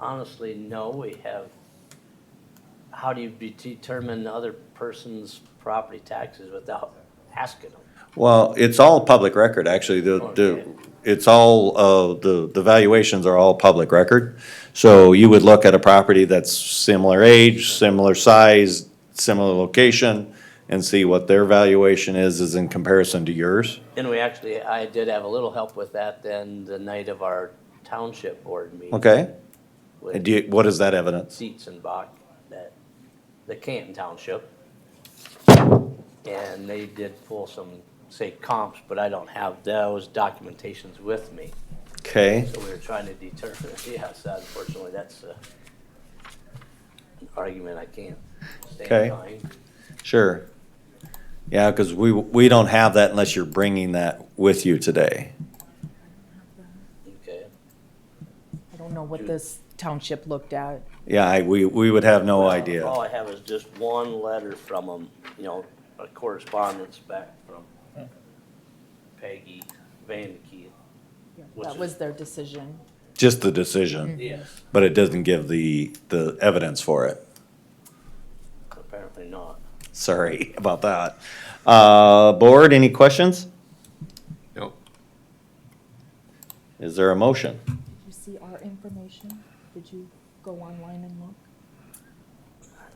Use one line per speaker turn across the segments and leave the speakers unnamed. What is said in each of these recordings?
honestly, no, we have, how do you be- determine the other person's property taxes without asking them?
Well, it's all public record, actually. The, the,
Okay.
it's all, uh, the, the valuations are all public record. So you would look at a property that's similar age, similar size, similar location, and see what their valuation is, is in comparison to yours.
And we actually, I did have a little help with that then the night of our township board meeting.
Okay? And
With
do you, what is that evidence?
Seats and Bach, that, the Canton Township. And they did pull some, say comps, but I don't have those documentations with me.
Okay,
So we were trying to determine, yes, unfortunately, that's uh, an argument I can't
Okay.
stand behind.
sure. Yeah, because we, we don't have that unless you're bringing that with you today.
Okay,
I don't know what this township looked at.
Yeah, I, we, we would have no idea.
All I have is just one letter from them, you know, a correspondence back from Peggy Vandekey. Which
That
is-
was their decision.
Just the decision.
Yes,
But it doesn't give the, the evidence for it.
apparently not.
Sorry about that. Uh, board, any questions?
No.
Is there a motion?
Did you see our information? Did you go online and look?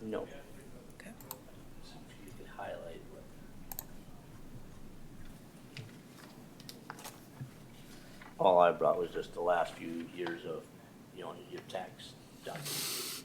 No.
Okay.
You can highlight what. All I brought was just the last few years of, you know, your tax documents.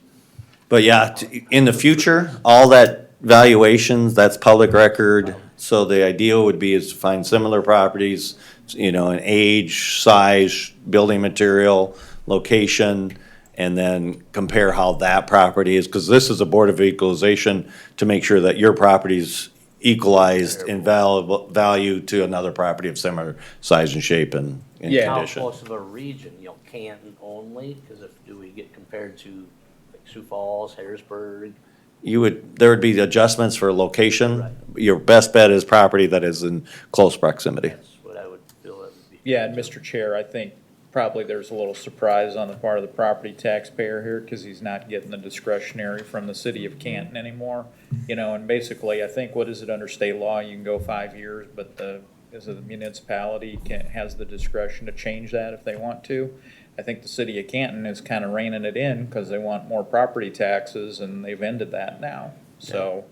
But yeah, t- in the future, all that valuations, that's public record. So the ideal would be is to find similar properties, you know, in age, size, building material, location, and then compare how that property is, because this is a Board of Equalization to make sure that your property's equalized in valuable, value to another property of similar size and shape and, and
Yeah.
How
condition.
close of a region, you know, Canton only, because if, do we get compared to like Sioux Falls, Harrisburg?
You would, there would be adjustments for
Right.
location. Your best bet is property that is in close proximity.
That's what I would feel it would be.
Yeah, and Mr. Chair, I think probably there's a little surprise on the part of the property taxpayer here because he's not getting the discretionary from the city of Canton anymore. You know, and basically, I think, what is it under state law? You can go five years, but the, is it the municipality can, has the discretion to change that if they want to. I think the city of Canton is kind of reining it in because they want more property taxes and they've ended that now. So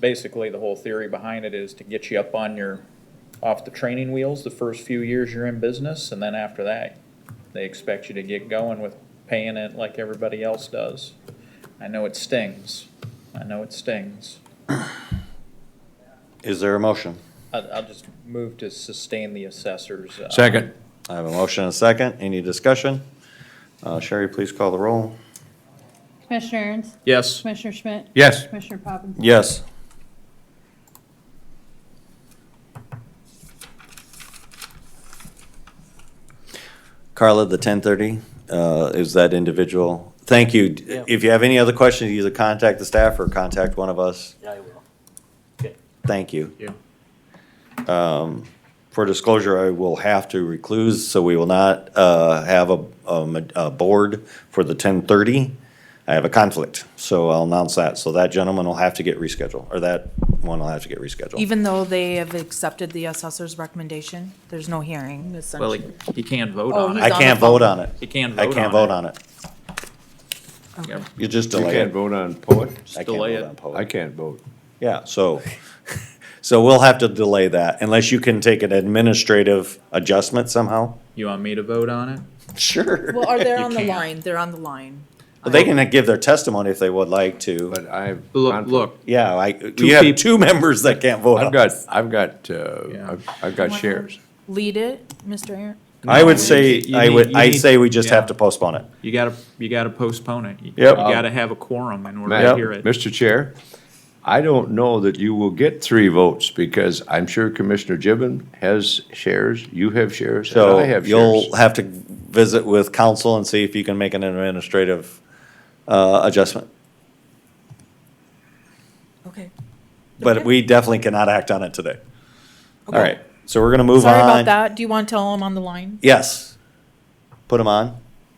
basically, the whole theory behind it is to get you up on your off the training wheels the first few years you're in business, and then after that, they expect you to get going with paying it like everybody else does. I know it stings. I know it stings.
Is there a motion?
I'll, I'll just move to sustain the assessors. uh,
Second.
I have a motion and a second. Any discussion? Uh, Sherry, please call the roll.
Commissioner Ernst?
Yes.
Commissioner Schmidt?
Yes.
Commissioner Poppins?
Yes. Carla, the ten thirty, uh, is that individual? Thank you.
Yeah.
If you have any other questions, either contact the staff or contact one of us.
Yeah, I will.
Thank you.
Yeah.
Um, For disclosure, I will have to recluse, so we will not uh, have a- a ma- a board for the 10:30. I have a conflict, so I'll announce that. So that gentleman will have to get rescheduled, or that one will have to get rescheduled.
Even though they have accepted the assessor's recommendation, there's no hearing,
Well, he,
essentially.
he can't vote
Oh,
on
he's
I
it.
on
can't
the phone.
vote on it.
He can't vote
I
on it.
can't vote on it.
Yeah,
You just
You
delay
can't
it.
vote on poet?
I can't
delay
vote
it.
on poll.
I can't vote.
Yeah, so, so we'll have to delay that unless you can take an administrative adjustment somehow.
You want me to vote on it?
Sure.
Well, are they
You
on the
can't.
line? They're on the line.
They can give their testimony if they would like to.
But I've.
Look, look,
Yeah, I, you have
peop-
two members that can't vote.
I've
on
got,
this.
I've got, uh,
Yeah.
I've- I've got shares.
Lead it, Mr. Aaron.
I would say,
You
I
need-
would,
you
I
need-
say we just
yeah.
have to postpone it.
you gotta, you gotta postpone it. You-
Yep.
You gotta have a quorum in order to
Madam-
hear it.
Mr. Chair, I don't know that you will get three votes because I'm sure Commissioner Gibbon has shares, you have shares, and
So
I have shares.
you'll have to visit with council and see if you can make an administrative, uh, adjustment.
Okay.
But
Okay.
we definitely cannot act on it today. All
Okay.
right, so we're gonna move on.
Sorry about that. Do you want to tell them on the line?
Yes. Put them on.